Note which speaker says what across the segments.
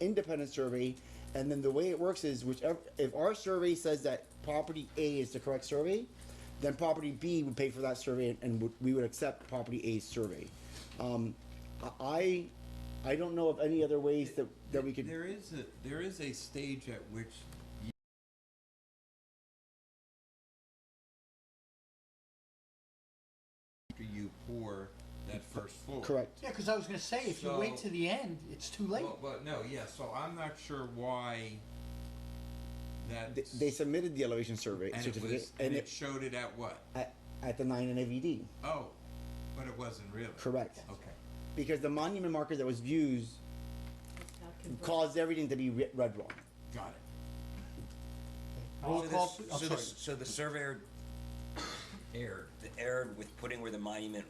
Speaker 1: independent survey, and then the way it works is whichever if our survey says that property A is the correct survey, then property B would pay for that survey, and would, we would accept property A's survey. Um, I I don't know of any other ways that that we could.
Speaker 2: There is a, there is a stage at which you- after you pour that first floor.
Speaker 1: Correct.
Speaker 3: Yeah, because I was gonna say, if you wait
Speaker 2: So-
Speaker 3: to the end, it's too late.
Speaker 2: Well, but no, yeah, so I'm not sure why that.
Speaker 1: They, they submitted the elevation survey
Speaker 2: And it
Speaker 1: certificate,
Speaker 2: was,
Speaker 1: and
Speaker 2: and
Speaker 1: it,
Speaker 2: it showed it at what?
Speaker 1: at, at the nine and AVD.
Speaker 2: Oh, but it wasn't really.
Speaker 1: Correct.
Speaker 2: Okay.
Speaker 1: Because the monument marker that was used caused everything to be re- read wrong.
Speaker 2: Got it.
Speaker 3: Roll
Speaker 4: So the-
Speaker 3: call, pl- I'm
Speaker 4: So the,
Speaker 3: sorry.
Speaker 4: so the surveyor
Speaker 2: Aired.
Speaker 4: erred with putting where the monument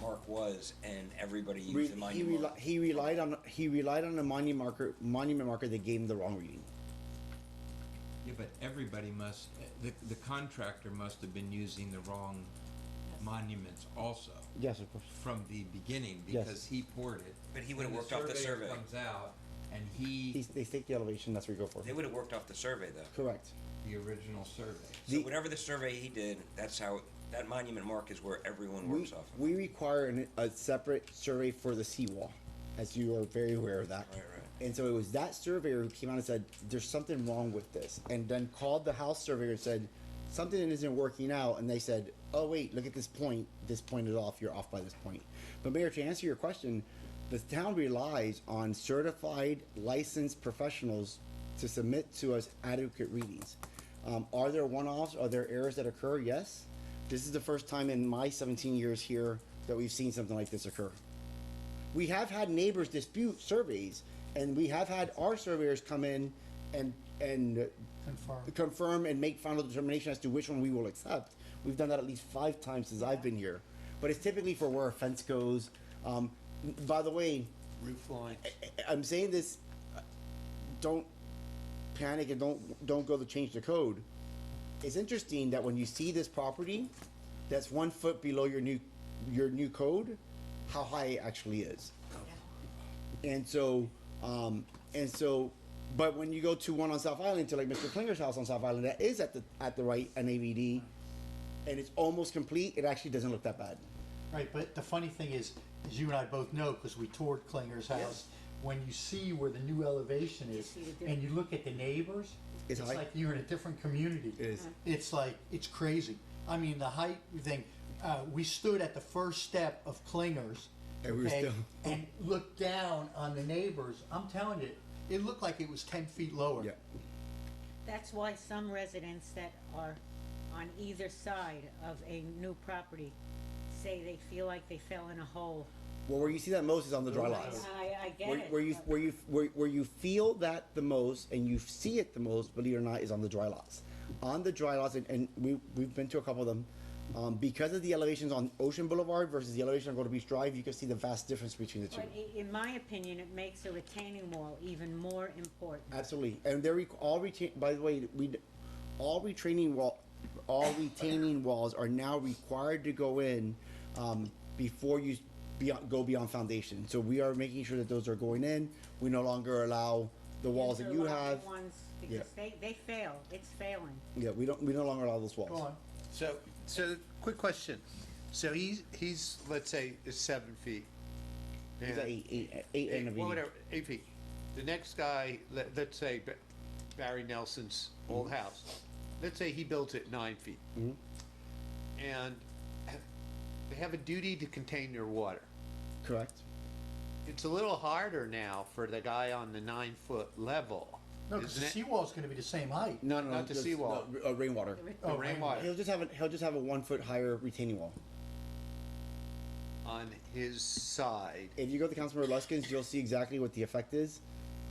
Speaker 4: mark was, and everybody
Speaker 1: Re-
Speaker 4: used the
Speaker 1: he,
Speaker 4: monument
Speaker 1: reli-
Speaker 4: mark.
Speaker 1: he relied on he relied on a monument marker monument marker that gave him the wrong reading.
Speaker 2: Yeah, but everybody must, the, the contractor must have been using the wrong monuments also.
Speaker 1: Yes, of course.
Speaker 2: from the beginning
Speaker 1: Yes.
Speaker 2: because he poured it.
Speaker 4: But he would've
Speaker 2: And
Speaker 4: worked off the
Speaker 2: surveyor
Speaker 4: survey.
Speaker 2: Comes out and he,
Speaker 1: They, they take the elevation. That's what we go for.
Speaker 4: They would have worked off the survey though.
Speaker 1: Correct.
Speaker 2: the original survey.
Speaker 4: So
Speaker 1: The-
Speaker 4: whatever the survey he did, that's how, that monument mark is where everyone
Speaker 1: We,
Speaker 4: works off of.
Speaker 1: we require an, a separate survey for the seawall, as you are very aware of that.
Speaker 4: Right, right.
Speaker 1: And so it was that surveyor who came out and said, "There's something wrong with this," and then called the house surveyor and said, "Something isn't working out." And they said, "Oh wait, look at this point. This point is off. You're off by this point." But Mayor, to answer your question, the town relies on certified, licensed professionals to submit to us adequate readings. Um, are there one-offs? Are there errors that occur? Yes. This is the first time in my 17 years here that we've seen something like this occur we have had neighbors dispute surveys, and we have had our surveyors come in and and
Speaker 3: Confirm.
Speaker 1: confirm and make final determination as to which one we will accept. We've done that at least five times since I've been here, but it's typically for where a fence goes. Um, by the way,
Speaker 3: Roof line.
Speaker 1: I- I'm saying this. uh, Don't panic and don't don't go to change the code. It's interesting that when you see this property, that's one foot below your new your new code, how high it actually is. And so, um, and so, but when you go to one on South Island, to like Mr. Klinger's house on South Island, that is at the at the right NAVD, and it's almost complete. It actually doesn't look that bad.
Speaker 3: Right, but the funny thing is, is you and I both know, because we toured Klinger's house, when you see where the new elevation is,
Speaker 5: see the difference.
Speaker 3: and you look at the neighbors,
Speaker 1: It's
Speaker 3: it's
Speaker 1: high.
Speaker 3: like you're in a different community.
Speaker 1: It
Speaker 5: Uh-huh.
Speaker 1: is.
Speaker 3: It's like, it's crazy. I mean, the height thing, uh, we stood at the first step of Klinger's.
Speaker 1: And we were
Speaker 3: okay,
Speaker 1: still-
Speaker 3: And looked down on the neighbors, I'm telling you, it looked like it was ten feet lower.
Speaker 1: Yeah,
Speaker 5: That's why some residents that are on either side of a new property say they feel like they fell in a hole.
Speaker 1: well, where you see that most is on the dry
Speaker 5: I,
Speaker 1: lots.
Speaker 5: I get
Speaker 1: where,
Speaker 5: it.
Speaker 1: where you
Speaker 5: but-
Speaker 1: where you where, where you feel that the most and you see it the most, believe it or not, is on the dry lots. On the dry lots, and, and we we've been to a couple of them. Um, because of the elevations on Ocean Boulevard versus the elevation on Golden Beach Drive, you can see the vast difference between the two.
Speaker 5: But i- in my opinion, it makes a retaining wall even more important.
Speaker 1: Absolutely, and they're re- all retain. By the way, we all retraining wall, all retaining walls are now required to go in um, before you s- beyond, go beyond foundation. So we are making sure that those are going in. We no longer allow the walls that you
Speaker 5: Interlocking
Speaker 1: have.
Speaker 5: Ones,
Speaker 1: Yeah.
Speaker 5: because they, they fail, it's failing.
Speaker 1: Yeah, we don't. We no longer allow those walls.
Speaker 3: Go on.
Speaker 6: So, so, quick question. So he's, he's, let's say, is seven feet.
Speaker 1: Is that eight, eight, eight and a
Speaker 6: Eight-
Speaker 1: V?
Speaker 6: well, Whatever, eight feet. The next guy, let, let's say Ba- Barry Nelson's
Speaker 1: Mm-hmm.
Speaker 6: old house, let's say he builds it nine feet. And they have a duty to contain their water.
Speaker 1: Correct.
Speaker 6: It's a little harder now for the guy on the nine-foot level,
Speaker 3: No, because the
Speaker 6: isn't it?
Speaker 3: seawall's gonna be the same height.
Speaker 1: No, no, no
Speaker 6: Not the
Speaker 1: just-
Speaker 6: seawall.
Speaker 1: no, r- uh, rainwater.
Speaker 3: Oh,
Speaker 6: The
Speaker 1: He'll
Speaker 6: rainwater
Speaker 1: just have a, he'll just have a one foot higher retaining wall.
Speaker 6: on his side.
Speaker 1: if you go to Councilmember Luskins, you'll see exactly what the effect is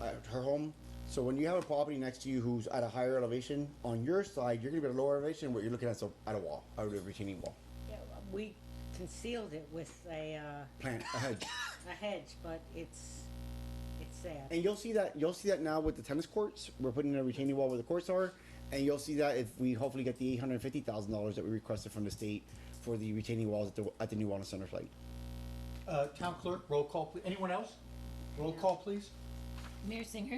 Speaker 1: at her home. So when you have a property next to you who's at a higher elevation, on your side, you're gonna be at a lower elevation, what you're looking at is a, at a wall, a retaining wall.
Speaker 5: Yeah, We concealed it with a, uh,
Speaker 1: Plant, a hedge.
Speaker 5: a hedge, but it's, it's sad.
Speaker 1: And you'll see that, you'll see that now with the tennis courts, we're putting in a retaining wall where the courts are. And you'll see that if we hopefully get the eight hundred and fifty thousand dollars that we requested from the state for the retaining walls at the, at the new wellness center site.
Speaker 3: Uh, town clerk, roll call, please. Anyone else? Roll call, please.
Speaker 7: Mayor Singer.